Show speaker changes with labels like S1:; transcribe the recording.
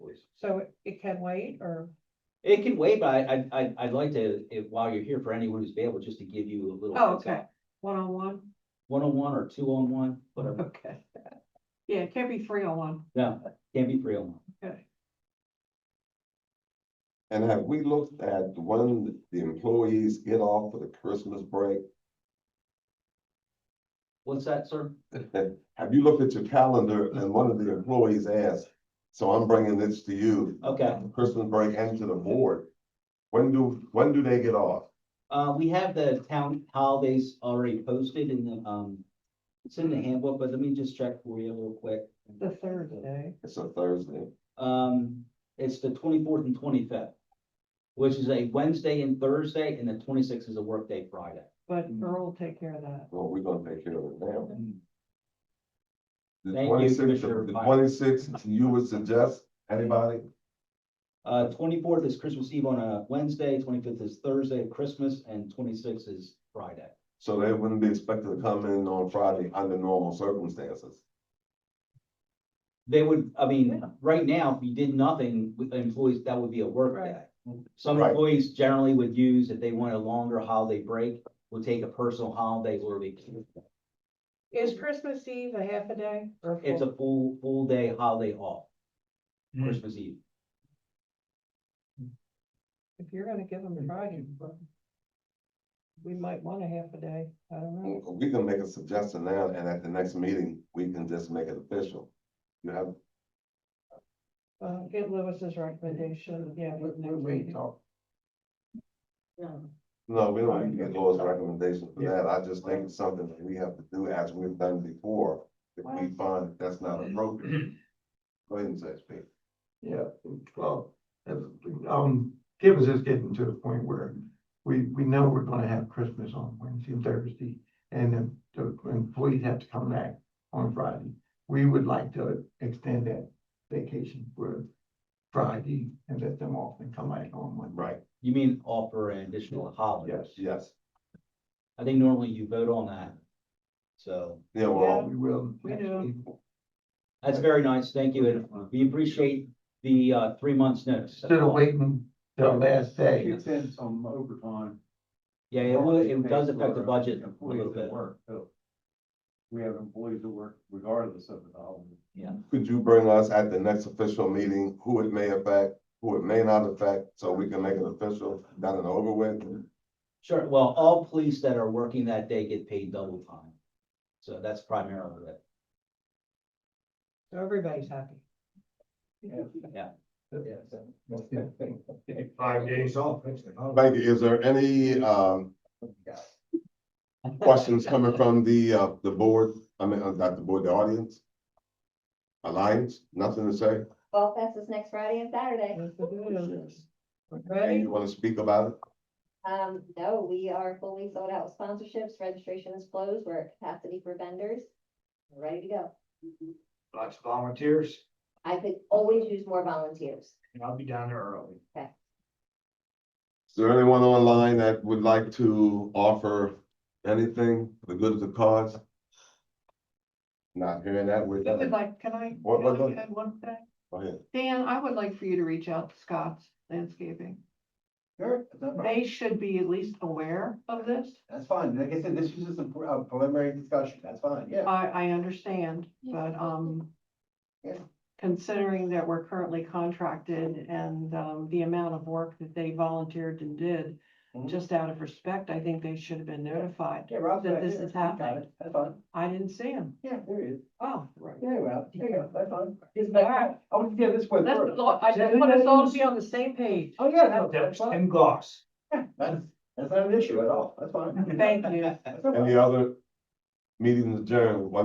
S1: please.
S2: So it- it can wait or,
S1: It can wait, but I, I, I'd- I'd like to, if, while you're here, for anyone who's available, just to give you a little.
S2: oh,
S1: heads up.
S2: okay, one on one,
S1: One-on-one or two-on-one, whatever,
S2: okay. Yeah, it can't be three on one,
S1: no, can't be oh three-on-one.
S2: okay.
S3: And have we looked at when the employees get off for the Christmas break?
S1: What's that, sir?
S3: Have you looked at your calendar and one of the employees asked, so I'm bringing this to you,
S1: Okay,
S3: Christmas break and to the board. When do, when do they get off?
S1: uh, we have the town holidays already posted in the, um, it's in the handbook, but let me just check for you real quick.
S2: The Thursday,
S3: It's a Thursday.
S1: Um, it's the twenty-fourth and twenty-fifth, which is a Wednesday and Thursday, and the twenty-sixth is a workday Friday.
S2: but Earl will take care of that.
S3: Well, we're gonna take care of it now. The
S1: Thank you,
S3: 26th
S1: Commissioner
S3: the
S1: Pike.
S3: twenty-sixth, you would suggest, anybody?
S1: Uh, twenty-fourth is Christmas Eve on a Wednesday, twenty-fifth is Thursday, Christmas, and twenty-sixth is Friday.
S3: So they wouldn't be expected to come in on Friday under normal circumstances.
S1: They would, I mean,
S2: Yeah.
S1: right now, if you did nothing with the employees, that would be a work day. Some
S3: Right.
S1: employees generally would use, if they want a longer holiday break, would take a personal holiday or vacation.
S2: Is Christmas Eve a half a day or?
S1: It's
S2: full?
S1: a full, full day holiday off, Christmas Eve.
S2: If you're gonna give them Friday, but we might want a half a day, I don't know.
S3: We can make a suggestion now, and at the next meeting, we can just make it official. You have
S2: Uh, get Lewis's recommendation, yeah.
S4: We,
S2: with
S4: we,
S2: next
S4: we
S2: meeting.
S4: talk,
S3: No, we
S4: Right.
S3: don't need to get Laura's recommendation for
S4: Yeah.
S3: that. I just think it's something that we have to do as we've done before. If we
S2: Right.
S3: find that that's not appropriate. Go ahead and say, it, Pete.
S4: yeah, well, as, um, Tibbs is getting to the point where we, we know we're gonna have Christmas on Wednesday and Thursday, and then the employees have to come back on Friday. We would like to extend that vacation for Friday and let them off and come back on Monday.
S3: Right,
S1: You mean offer an additional holiday?
S4: Yes, yeah,
S3: yes.
S1: I think normally you vote on that. So
S3: Yeah, well,
S4: we will.
S2: We
S4: next
S2: do.
S4: week.
S1: that's very nice. Thank you. And we appreciate the uh three months notice.
S4: Instead of waiting till last day,
S5: It depends on overtime.
S1: Yeah, it will, it does affect the budget a
S5: Employees
S1: little
S5: that
S1: bit.
S5: work, too. We have employees that work regardless of the holiday.
S3: could you bring us at the next official meeting, who it may affect, who it may not affect, so we can make it official, done and over with?
S1: Sure, well, all police that are working that day get paid double time. So that's primarily it.
S2: So everybody's happy.
S5: Five days off.
S3: Thank you. Is there any, um, questions coming from the, uh, the board? I mean, uh, not the board, the audience? Alliance, nothing to say?
S6: Fall Fest is next Friday and Saturday.
S2: Let's do it.
S3: And
S2: Ready?
S3: you want to speak about it?
S6: Um, no, we are fully sold out with sponsorships. Registration is closed. We're at capacity for vendors. We're Ready to go.
S5: Lots of volunteers,
S6: I could always use more volunteers.
S5: and I'll be down there early.
S3: Is there anyone online that would like to offer anything for the good of the cause? Not hearing that, we're
S2: I would
S3: done.
S2: like, can I,
S3: What- what-
S2: can I add one thing?
S3: Go ahead.
S2: Dan, I would like for you to reach out to Scott's Landscaping.
S5: Sure,
S2: They should be at least aware of this.
S5: that's fine. Like I said, this was just a preliminary discussion. That's fine, yeah.
S2: I, I understand, but, um,
S5: Yeah.
S2: considering that we're currently contracted and, um, the amount of work that they volunteered and did,
S5: Mhm.
S2: just out of respect, I think they should have been notified.
S5: Yeah, Rob's
S2: That
S5: right
S2: this
S5: there.
S2: is
S5: Got
S2: happening.
S5: it. That's fine.
S2: I didn't see them.
S5: Yeah, there it is.
S2: Oh, right.
S5: Yeah, Rob, there you go. That's fine. Isn't
S2: All right.
S5: that, I want to get this one
S2: That's,
S5: first.
S2: I just want us all to be on the same page.
S5: Oh, yeah, no, that's fine.
S4: Gloss.
S5: That's, that's not an issue at all. That's fine.
S2: Thank you.
S5: That's all right.
S3: Any other meetings adjourned? One